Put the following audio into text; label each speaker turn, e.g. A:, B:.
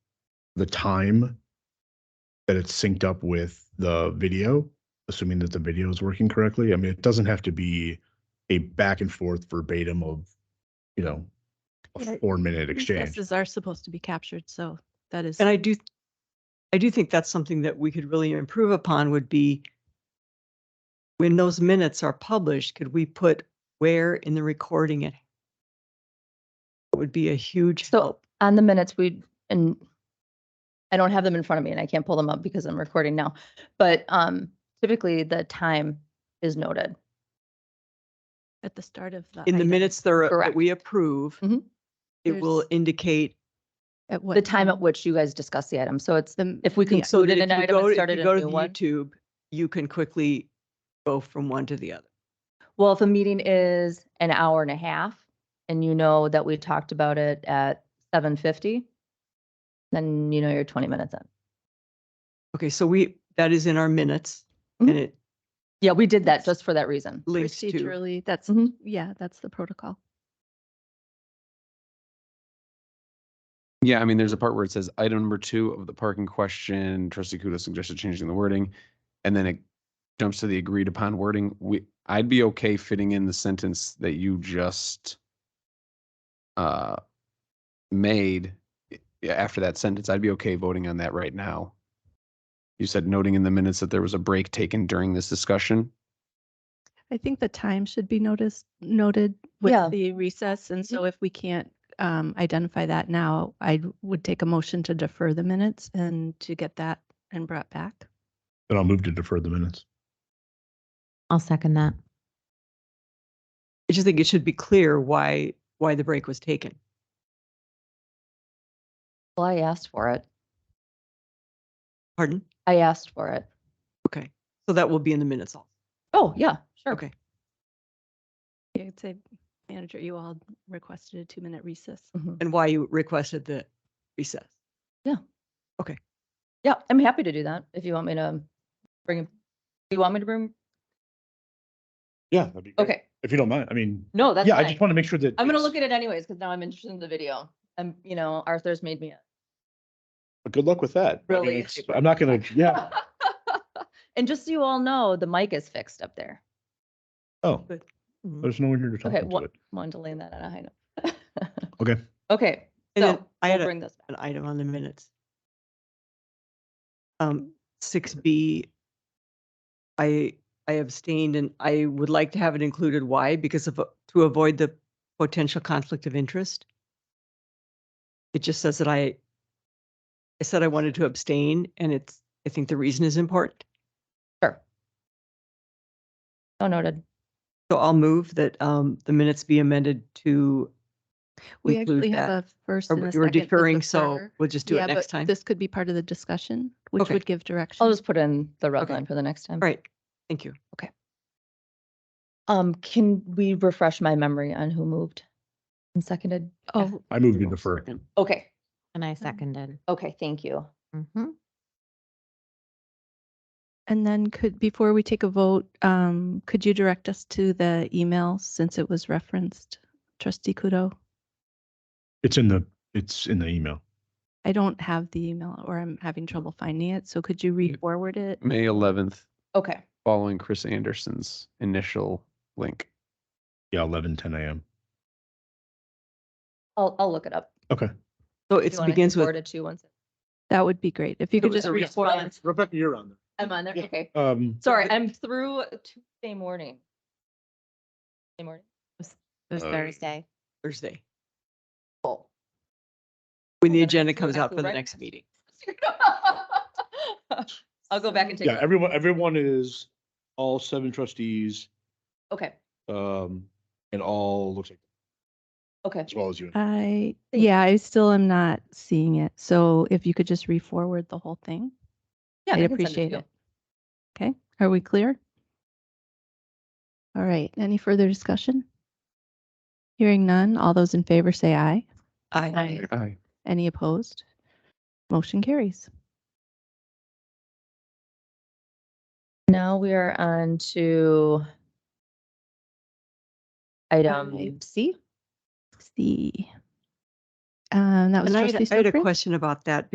A: the time that it's synced up with the video, assuming that the video is working correctly. I mean, it doesn't have to be a back and forth verbatim of, you know,
B: Yeah,
A: a four minute exchange.
B: Processes are supposed to be captured, so that is.
C: And I do, I do think that's something that we could really improve upon would be when those minutes are published, could we put where in the recording it? It would be a huge
D: So
C: help.
D: on the minutes, we, and I don't have them in front of me and I can't pull them up because I'm recording now. But um typically the time is noted.
B: At the start of the.
C: In the
B: item,
C: minutes that are- that
D: Correct.
C: we approve,
D: Mhm.
C: it will
B: There's-
C: indicate.
B: At what?
D: The time at which you guys discuss the item. So it's,
B: The,
D: if we
B: the-
C: so
D: concluded
C: that
D: an
C: if you
D: item
C: go-
D: and
C: if
D: started
C: you
D: a
C: Go
D: new
C: to
D: one.
C: YouTube, you can quickly go from one to the other.
D: Well, if a meeting is an hour and a half and you know that we talked about it at seven fifty, then you know you're twenty minutes in.
C: Okay, so we, that is in our minutes and
D: Mhm.
C: it
D: Yeah, we did that just for that reason.
C: links to. Mm-hmm.
B: procedurally, that's,
D: Mhm.
B: yeah, that's the protocol.
E: Yeah, I mean, there's a part where it says item number two of the parking question, trustee Kudo suggested changing the wording. And then it jumps to the agreed upon wording. We, I'd be okay fitting in the sentence that you just uh, made i- after that sentence. I'd be okay voting on that right now. You said noting in the minutes that there was a break taken during this discussion.
B: I think the time should be noticed, noted with
D: Yeah.
B: the recess. And so if we can't um, identify that now, I would take a motion to defer the minutes and to get that and brought back.
A: Then I'll move to defer the minutes.
F: I'll second that.
C: I just think it should be clear why, why the break was taken.
D: Well, I asked for it.
C: Pardon?
D: I asked for it.
C: Okay, so that will be in the minutes all.
D: Oh, yeah, sure.
C: Okay,
B: You could say, manager, you all requested a two-minute recess.
D: Mm-hmm.
C: and why you requested the recess.
D: Yeah, I'm happy to do that if you want me to bring, it- do you want me to bring?
A: Yeah, that'd be great.
D: Okay,
A: If you don't mind, I mean,
D: no, that's
A: yeah, I just
D: fine.
A: want to make sure that.
D: I'm gonna
A: it's-
D: look at it anyways, because now I'm interested in the video. And, you know, Arthur's made me.
A: But good luck with that. I mean,
D: Really
A: it's-
D: super
A: I'm not gonna, yeah,
D: And just so you all know, the mic is fixed up there.
A: oh,
C: But- Mhm.
D: Mm-hmm.
A: there's no one here to talk
D: Okay,
A: to
D: one,
A: it.
D: wanted to land that on a high note.
A: Okay.
D: Okay,
C: And then
D: so
C: I
D: we'll
C: had a-
D: bring this back.
C: an item on the minutes. Um, six B. I, I abstained and I would like to have it included. Why? Because of, to avoid the potential conflict of interest. It just says that I, I said I wanted to abstain and it's, I think the reason is important.
D: Sure. So noted.
C: So I'll move that um, the minutes be amended to
B: We
C: include
B: actually have
C: that.
B: a first
C: Or
B: and a
C: We're
B: second. as
C: deferring,
B: the
C: so
B: third.
C: we'll just do
B: Yeah,
C: it next
B: but
C: time. All
B: This could be part of the discussion, which
C: Okay.
B: would give direction.
D: I'll just put in the red
C: Okay.
D: line for the next time.
C: right, thank you.
D: Um, can we refresh my memory on who moved and seconded?
B: Oh,
A: I moved to defer.
D: Okay, Mm.
F: And I seconded.
D: okay, thank you.
F: Mm-hmm.
B: and then could, before we take a vote, um, could you direct us to the email since it was referenced? Trustee Kudo,
A: It's in the, it's in the email.
B: I don't have the email or I'm having trouble finding it. So could you
E: Yeah.
B: re-forward it?
E: May 11th,
D: Okay,
E: following Chris Anderson's initial link.
A: Yeah, eleven, ten AM.
D: I'll, I'll look it up.
A: Okay.
C: So
D: Do
C: it
D: you want me to
C: begins with,
D: forward it to you once.
B: That would be great. If you could
D: was
B: just
D: a
B: re-forward.
D: response.
A: Rebecca, you're on there.
D: I'm on there,
A: Yeah.
D: okay.
A: Um,
D: Sorry, I'm through Tuesday morning. Tuesday morning?
F: It was
E: Uh,
F: Thursday.
C: Thursday,
D: Oh.
C: when the
D: then
C: agenda
D: it's
C: comes out for the
D: correct.
C: next meeting.
D: I'll go back and take. a
A: yeah,
D: look.
A: everyone, everyone is, all seven trustees,
D: Okay,
A: um, and all looks like,
D: okay,
A: as well as you. and-
B: I,
D: Thank
B: yeah, I still am not seeing it. So if you could just re-forward the whole thing,
D: yeah. I
B: I'd
D: can send to
B: appreciate
D: you.
B: it. Okay, are we clear? All right, any further discussion? Hearing none, all those in favor say aye.
C: I,
E: Aye.
B: Any opposed? Motion carries.
D: Now we are on to item
B: Five.
D: C.
B: See. Um, that was
C: and I
B: trustee
C: had I had a
B: Stokely?
C: question about that